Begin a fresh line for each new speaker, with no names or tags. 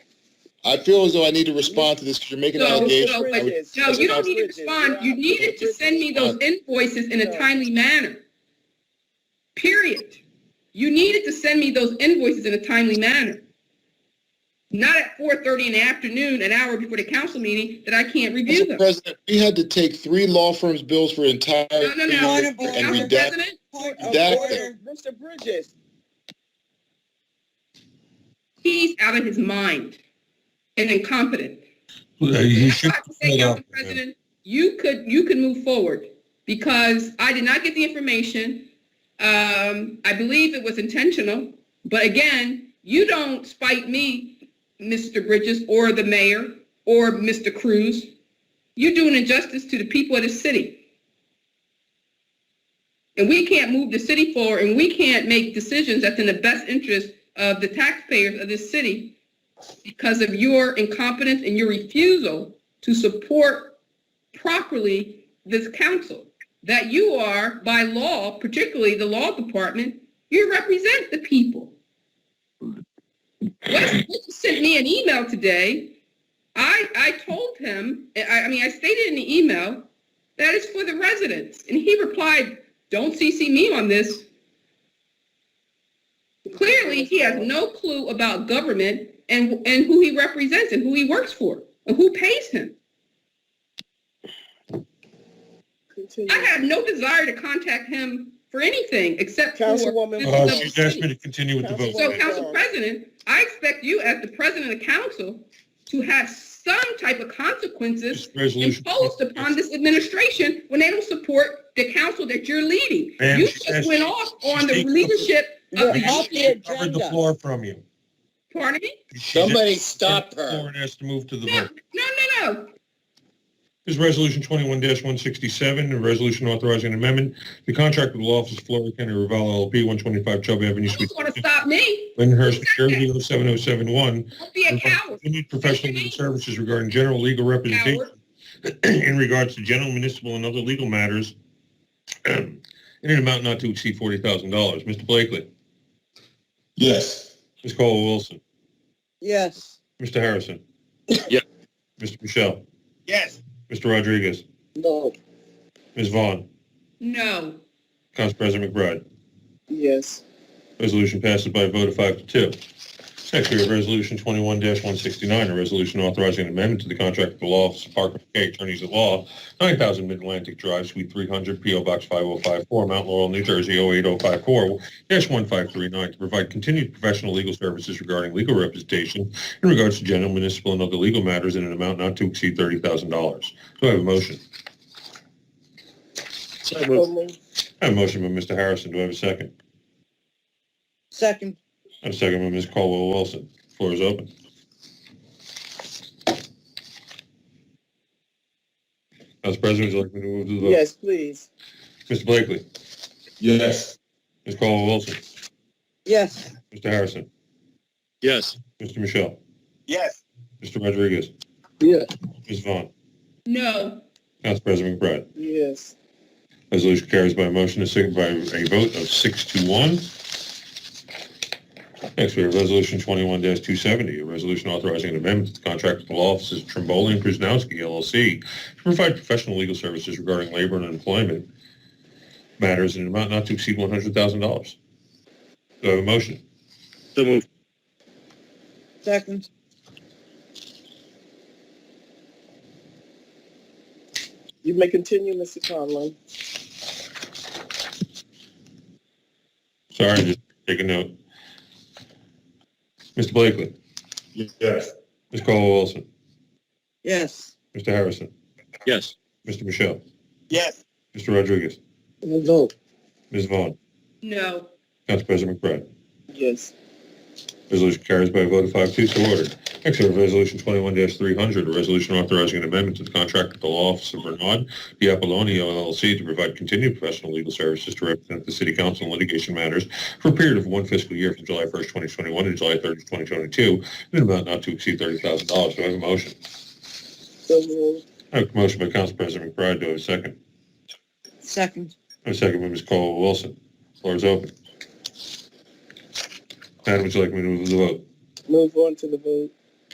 I feel as though I need to respond to this because you're making an
No,
allegation.
no,
I
but-
would-
Bridges.
No, you don't need to
Bridges.
respond. You uh, needed to send me those invoices in a timely manner. Period. You needed to send me those invoices in a timely manner. Not at four thirty in the afternoon, an hour before the council meeting, that I can't review
Mr.
them.
President, we had to take three law firms' bills for entire
No, no, no.
year and
Council
redact.
President,
Point of
That-
order, Mr. Bridges.
he's out of his mind and incompetent.
You
That's
should
why I say,
cut
Council
off.
President, you could, you could move forward because I did not get the information. Um, I believe it was intentional, but again, you don't spite me, Mr. Bridges, or the mayor, or Mr. Cruz. You're doing injustice to the people of the city. And we can't move the city forward and we can't make decisions that's in the best interest of the taxpayers of this city because of your incompetence and your refusal to support properly this council that you are by law, particularly the law department, you represent the people. Wes Mitchell sent me an email today. I, I told him, I, I mean, I stated in the email, that is for the residents. And he replied, don't CC me on this. Clearly, he has no clue about government and, and who he represents and who he works for and who pays him.
Continue.
I have no desire to contact him for anything except for.
Councilwoman-
this
Uh,
is
She's
our
asked me
city.
to continue with the
So,
vote.
Council President, I expect you as the President of Council to have some type of consequences
This resolution.
imposed upon this administration when they don't support the council that you're leading.
Ma'am,
You
she
just
has-
went off
she's
on the
taking-
leadership
You're
of
off
the
the
union.
Covered the
agenda.
floor from you.
Pardon me?
She just-
Somebody stop
The floor
her.
and has to move to the
No,
vote.
no, no, no.
This is Resolution 21-167, a resolution authorizing an amendment to contract with the law office of Florida County Revolve LLP, 125 Chubb Avenue,
You
Suite
just want to stop me.
Lyndhurst, Jersey, 07071,
Don't be a coward.
continued professional legal services regarding general legal representation in regards to general municipal and other legal matters in an amount not to exceed $40,000. Mr. Blakely,
Yes.
Ms. Colwell Wilson,
Yes,
Mr. Harrison.
Yeah.
Mr. Michelle,
Yes.
Mr. Rodriguez,
no,
Ms. Vaughn,
No.
Council President McBride.
yes.
Resolution passes by a vote of five to two. Next, we have Resolution 21-169, a resolution authorizing an amendment to the contract with the law office of Parker McKay Attorneys at Law, 9,000 Mid-Atlantic Drive, Suite 300, P.O. Box 5054, Mount Laurel, New Jersey, 08054-1539, to provide continued professional legal services regarding legal representation in regards to general, municipal, and other legal matters in an amount not to exceed $30,000. Do I have a motion?
So
So
moved.
moved.
I have a motion by Mr. Harrison. Do I have a second?
Second,
I have a second by Ms. Caldwell Wilson. Floor is open. Council President, would you like me to move to the vote?
yes, please.
Mr. Blakely,
Yes.
Ms. Caldwell Wilson,
Yes,
Mr. Harrison,
Yes.
Mr. Michelle,
Yes.
Mr. Rodriguez,
Yeah.
Ms. Vaughn,
No.
Council President McBride.
yes.
Resolution carries by a motion and second by a vote of six to one. Next, we have Resolution 21-270, a resolution authorizing an amendment to the contract with the law offices of Trimboli and Kuznowski LLC to provide professional legal services regarding labor and employment matters in an amount not to exceed $100,000. Do I have a motion?
So moved.
Second, you may continue, Mr. Conlon.
Sorry, just take a note. Mr. Blakely,
Yes.
Ms. Caldwell Wilson,
Yes.
Mr. Harrison,
Yes.
Mr. Michelle,
Yes.
Mr. Rodriguez,
No.
Ms. Vaughn,
No.
Council President McBride.
Yes,
Resolution carries by a vote of five two so ordered. Next, we have Resolution 21-300, a resolution authorizing an amendment to the contract with the law office of Bernard Di Apolonio LLC to provide continued professional legal services to represent the city council in litigation matters for a period of one fiscal year from July 1st, 2021 to July 30th, 2022, in an amount not to exceed $30,000. Do I have a motion?
so moved.
I have a motion by Council President McBride. Do I have a second?
Second,
I have a second by Ms. Colwell Wilson. Floor is open. Madam, would you like me to move the vote?
move on to the vote.